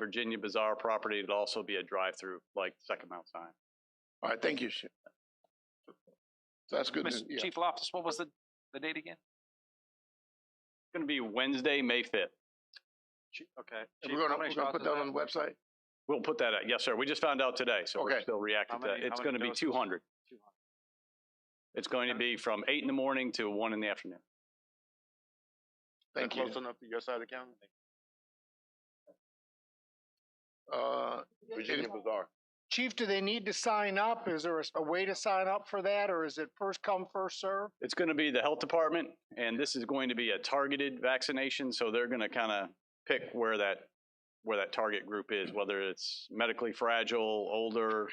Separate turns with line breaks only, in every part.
Virginia Bazaar property, it'll also be a drive-through like Second Mount Sinai.
All right, thank you. Sh- So that's good. news,
Mr.
yeah.
Chief Loftus, what was the, the date again?
It's gonna be Wednesday, May fifth.
Okay.
And We're gonna, we're gonna put that on the website.
We'll put that out. Yes, sir. We just found out today, so we're
Okay.
still reacting
How
to that.
many-
It's
how many
gonna be
doses?
two hundred. It's going to be from eight in the morning to one in the afternoon.
Thank you.
enough to your side of the county?
Uh,
Virginia Bazaar.
Chief, do they need to sign up? Is there a s- a way to sign up for that, or is it first come, first serve?
It's going to be the health department, and this is going to be a targeted vaccination, so they're going to kind of pick where that, where that target group is, whether it's medically fragile, older,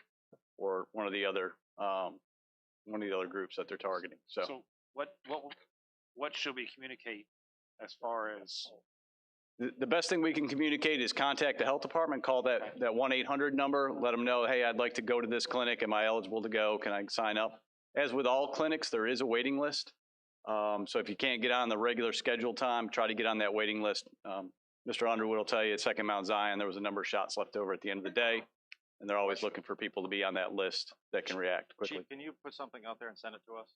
or one of the other, um, one of the other groups that they're targeting, so.
So what, what, what should we communicate as far as,
Oh,
The, the best thing we can communicate is contact the health department, call that, that one eight hundred number, let them know, hey, I'd like to go to this clinic, am I eligible to go, can I sign up? As with all clinics, there is a waiting list. Um, so if you can't get on the regular scheduled time, try to get on that waiting list. Um, Mr. Underwood will tell you at Second Mount Zion, there was a number of shots left over at the end of the day. And they're always looking for people to be on that list that can react quickly.
Chief, can you put something out there and send it to us?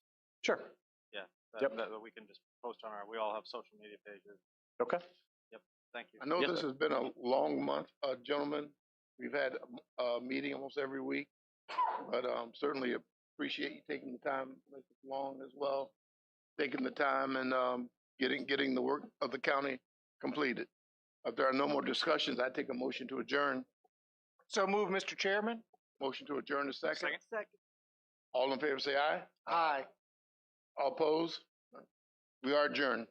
Sure.
that-
Yep.
That, that we can just post on our, we all have social media pages.
Okay.
Thank you.
I know
Yes,
this
sir.
has been a long month, uh, gentlemen. We've had a, a meeting almost every week, but, um, certainly appreciate you taking the time, Mr. Long as well, taking the time and, um, getting, getting the work of the county completed. If there are no more discussions, I take a motion to adjourn.
So move, Mr. Chairman?
Motion to adjourn is second.
Second.
All in favor, say aye.
Aye.
All opposed? We are adjourned.